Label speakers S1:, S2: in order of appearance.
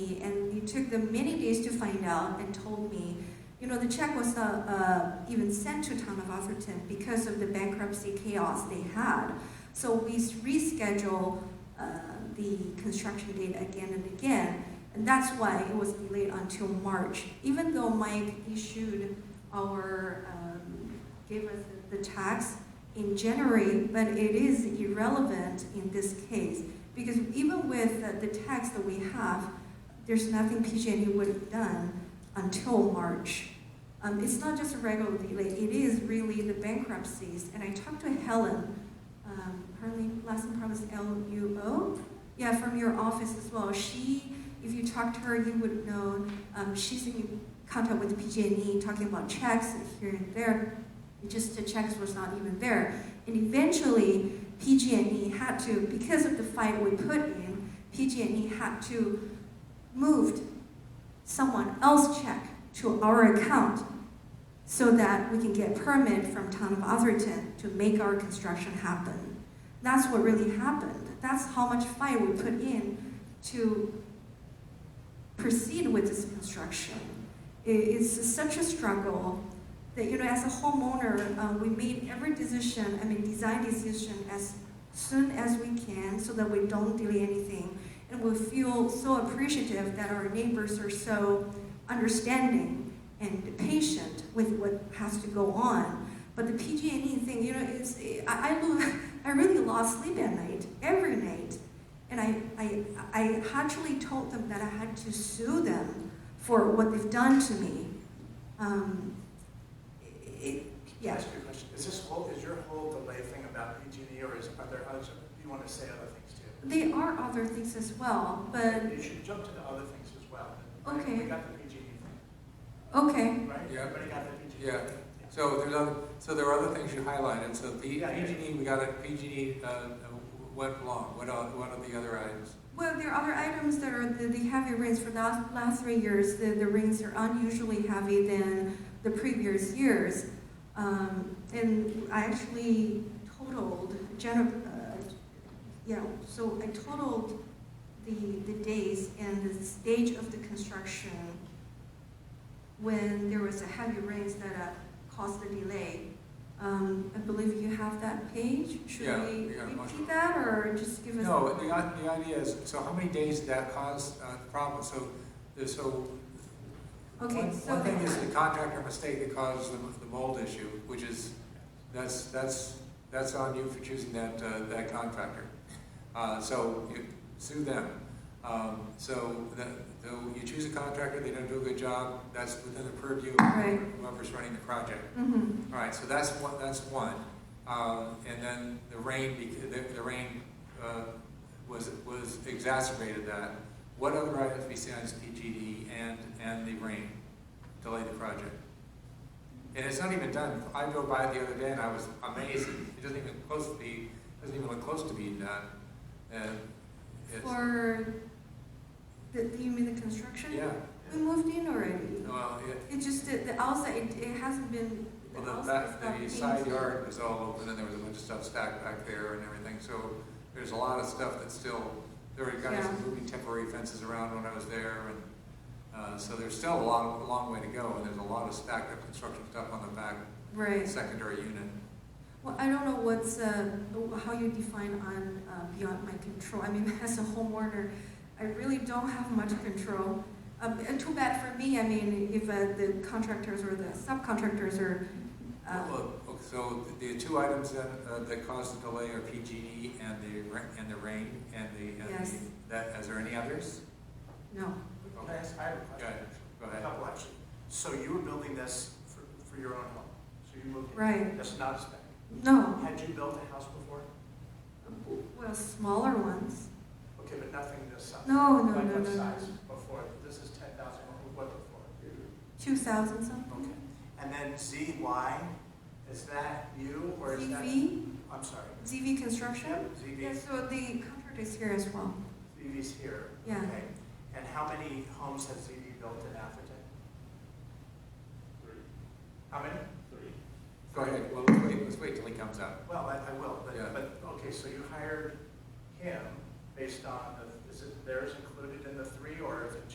S1: And it took them many days to find out and told me, you know, the check was not uh, even sent to town of Atherton because of the bankruptcy chaos they had. So we s- reschedule uh, the construction date again and again, and that's why it was delayed until March. Even though Mike issued our, um, gave us the the tax in January, but it is irrelevant in this case because even with uh, the tax that we have, there's nothing PG&E would have done until March. Um, it's not just a regular delay, it is really the bankruptcies. And I talked to Helen, um, her la- last name probably is L-U-O, yeah, from your office as well. She, if you talked to her, you would have known, um, she's in contact with PG&E talking about checks here and there, just the checks was not even there. And eventually, PG&E had to, because of the fight we put in, PG&E had to moved someone else check to our account so that we can get permit from town of Atherton to make our construction happen. That's what really happened. That's how much fight we put in to proceed with this construction. I- It's such a struggle that, you know, as a homeowner, uh, we made every decision, I mean, design decision as soon as we can so that we don't delay anything and we feel so appreciative that our neighbors are so understanding and patient with what has to go on. But the PG&E E thing, you know, it's I I, lo- I really lost sleep at night every night, and I I I actually told them that I had to sue them for what they've done to me. Um, it,
S2: Can I
S1: yeah.
S2: ask you a question? Is this whole, is your whole delay thing about PG&E or is, are there other, you want to say other things too?
S1: They are other things as well, but
S2: You should jump to the other things as well.
S1: Um, Okay.
S2: We got the PG&E thing,
S1: okay.
S2: right?
S3: Yeah.
S2: Everybody got the PG&E?
S3: Yeah. So there's other, so there are other things you highlighted, so P-
S2: Yeah, yeah.
S3: PG&E, we got it, PG&E, uh, uh, went long, what are, what are the other items?
S1: Well, there are other items that are the, the heavy rains for the last, last three years. The, the rains are unusually heavy than the previous years. Um, and I actually totaled, gener- uh, yeah, so I totaled the, the days and the stage of the construction when there was a heavy rains that uh, caused the delay. Um, I believe you have that page. Should
S3: Yeah,
S1: we
S3: we got a bunch
S1: repeat
S3: of-
S1: that or just give us?
S3: No, the, i- the idea is, so how many days did that cause, uh, the problem? So, the- so
S1: Okay,
S3: One-
S1: so.
S3: One thing is the contractor mistake that caused the, the mold issue, which is, that's, that's, that's on you for choosing that, uh, that contractor. Uh, so you sue them. Um, so that, though you choose a contractor, they don't do a good job, that's within the purview
S1: Right.
S3: of whoever's running the project.
S1: Mhm.
S3: All right, so that's one, that's one. Um, and then the rain, bec- the, the rain, uh, was, was exacerbated that. What other items besides PGD and, and the rain delayed the project? And it's not even done. I drove by it the other day and I was amazed. It doesn't even close to be, doesn't even look close to being done. And it's,
S1: For, the, you mean the construction?
S3: yeah,
S1: We moved in already.
S3: well, it,
S1: It's just that the outside, it, it hasn't been, the
S3: Well, the
S1: outside
S3: back,
S1: stuff. being-
S3: the side yard was all open, and there was a bunch of stuff stacked back there and everything, so there's a lot of stuff that's still, there were guys
S1: Yeah.
S3: moving temporary fences around when I was there, and, uh, so there's still a lot, a long way to go, and there's a lot of stacked up construction stuff on the back
S1: Right.
S3: secondary unit.
S1: Well, I don't know what's, uh, how you define on, uh, beyond my control. I mean, as a homeowner, I really don't have much control. Um, and too bad for me, I mean, if, uh, the contractors or the subcontractors are, uh,
S3: Well, look, so the the two items that, uh, that caused the delay are PG&E and the, ra- and the rain, and the, and
S1: Yes.
S3: the, that, is there any others?
S1: no.
S2: Can I ask, I have a
S3: Go
S2: question.
S3: ahead, go
S2: A
S3: ahead.
S2: couple actually. So you were building this for, for your own home? So you moved in?
S1: Right.
S2: That's not a spec.
S1: No,
S2: Had you built a house before?
S1: well, smaller ones.
S2: Okay, but nothing this size?
S1: No, no,
S2: Like
S1: no,
S2: what
S1: no, no.
S2: size before? This is 10,000, What- what before?
S1: 2000 something.
S2: Okay, and then ZY, is that you or is that?
S1: ZV,
S2: I'm sorry.
S1: ZV Construction?
S2: Yep,
S1: Yeah,
S2: ZV,
S1: so the contract is here as well.
S2: ZV's here.
S1: Yeah.
S2: Okay. And how many homes has ZV built in Atherton?
S4: Three,
S2: How many?
S4: three.
S3: Go ahead, well, let's wait, let's wait till he comes up.
S2: Well, I, I will, but,
S3: Yeah.
S2: but, okay, so you hired him based on, the- is it, theirs included in the three or is it